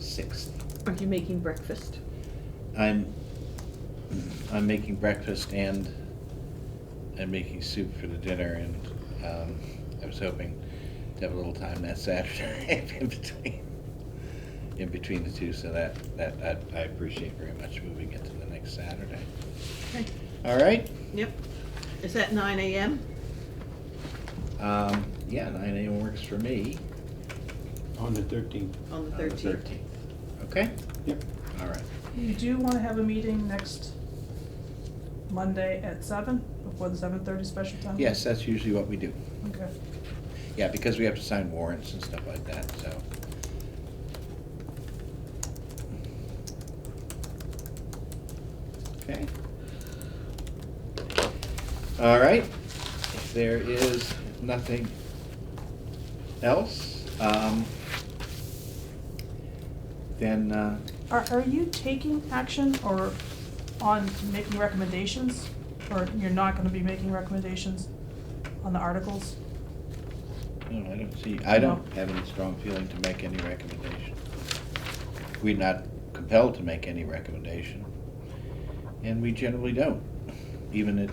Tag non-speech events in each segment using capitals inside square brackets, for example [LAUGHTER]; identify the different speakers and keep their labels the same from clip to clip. Speaker 1: sixth.
Speaker 2: Are you making breakfast?
Speaker 1: I'm, I'm making breakfast and I'm making soup for the dinner and, um, I was hoping to have a little time that Saturday [LAUGHS] in between, in between the two, so that, that, that I appreciate very much moving it to the next Saturday.
Speaker 2: Okay.
Speaker 1: All right,
Speaker 2: Yep. Is that nine AM?
Speaker 1: um, yeah, nine AM works for me.
Speaker 3: On the thirteenth.
Speaker 2: On
Speaker 1: on
Speaker 2: the
Speaker 1: the
Speaker 2: thirteenth.
Speaker 1: 13th. Okay,
Speaker 3: Yep.
Speaker 1: all right.
Speaker 4: You do wanna have a meeting next Monday at seven, before the seven thirty special time?
Speaker 1: Yes, that's usually what we do.
Speaker 4: Okay.
Speaker 1: Yeah, because we have to sign warrants and stuff like that, so. Okay. All right, if there is nothing else, um, then, uh,
Speaker 4: Are, are you taking action or on making recommendations? Or you're not gonna be making recommendations on the articles?
Speaker 1: no, I don't see, I don't
Speaker 4: No.
Speaker 1: have any strong feeling to make any recommendation. We're not compelled to make any recommendation, and we generally don't, even at,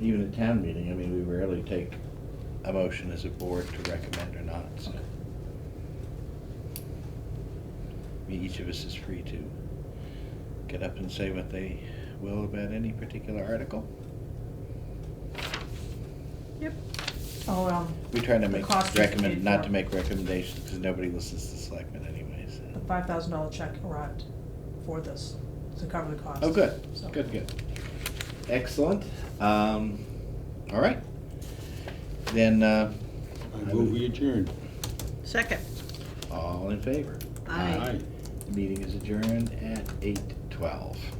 Speaker 1: even at town meeting, I mean, we rarely take a motion as a board to recommend or not, so. I mean, each of us is free to get up and say what they will about any particular article.
Speaker 2: Yep.
Speaker 4: Oh, um,
Speaker 1: We try to
Speaker 4: The
Speaker 1: make
Speaker 4: cost is
Speaker 1: recommend,
Speaker 4: paid
Speaker 1: not
Speaker 4: for.
Speaker 1: to make recommendations, because nobody listens to selectmen anyways.
Speaker 4: the five thousand dollar check arrived for this, to cover the cost.
Speaker 1: Oh, good,
Speaker 4: So-
Speaker 1: good, good. Excellent. Um, all right. Then, uh,
Speaker 3: I move we adjourn.
Speaker 2: Second.
Speaker 1: all in favor?
Speaker 2: Aye.
Speaker 3: Aye.
Speaker 1: The meeting is adjourned at eight twelve.